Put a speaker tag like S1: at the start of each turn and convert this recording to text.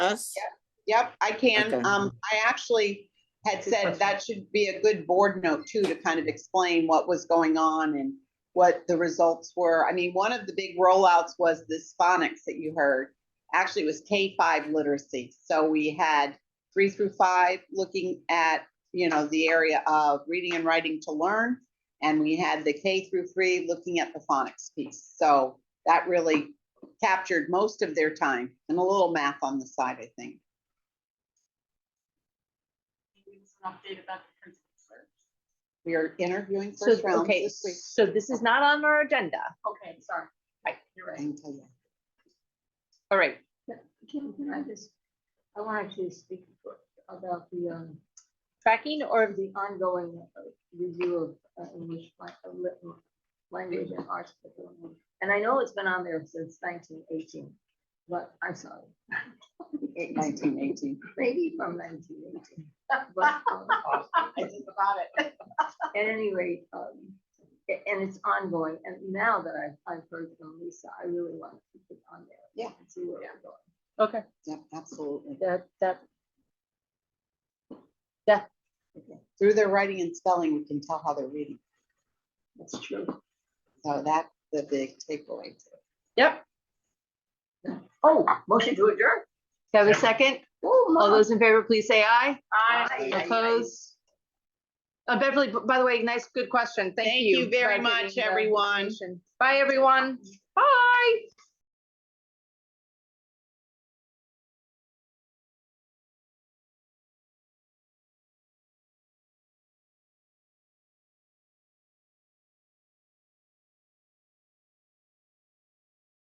S1: us?
S2: Yep, I can.
S1: Okay.
S2: Um, I actually had said that should be a good board note too, to kind of explain what was going on and what the results were. I mean, one of the big rollouts was this phonics that you heard. Actually, it was K five literacy. So we had three through five looking at, you know, the area of reading and writing to learn. And we had the K through three looking at the phonics piece. So that really captured most of their time and a little math on the side, I think.
S3: Give us an update about the principal search.
S2: We are interviewing
S4: So,
S2: first round
S4: okay,
S2: this week.
S4: so this is not on our agenda.
S3: Okay, sorry.
S4: Right.
S3: You're right.
S2: I can tell you.
S4: All right,
S5: Can, can I just, I wanted to speak about the, um,
S4: tracking or,
S5: the ongoing uh, review of uh, English lang- uh, lit- language and arts. curriculum. And I know it's been on there since nineteen eighteen, but I'm sorry,
S2: Eight- 1918.
S5: maybe from nineteen eighteen. But um,
S3: I think about it.
S5: at any rate, um, a- and it's ongoing. And now that I've, I've heard from Lisa, I really want to keep it on there.
S2: Yeah.
S5: and See where we're going.
S4: okay,
S2: Yep, absolutely.
S4: that, that,
S2: Through their writing and spelling, we can tell how they're reading.
S5: That's true.
S2: So that's the big takeaway.
S4: yep.
S5: Oh, motion to adjourn.
S4: Do I have a second?
S5: Oh,
S4: All
S5: Mom.
S4: those in favor, please say aye.
S3: I.
S5: Aye, aye, aye.
S4: Opposed? Uh, Beverly, b- by the way, nice, good question. Thank
S2: Thank
S4: you.
S2: you very
S4: for
S2: much,
S4: giving the
S2: everyone.
S4: information. Bye, everyone. Bye.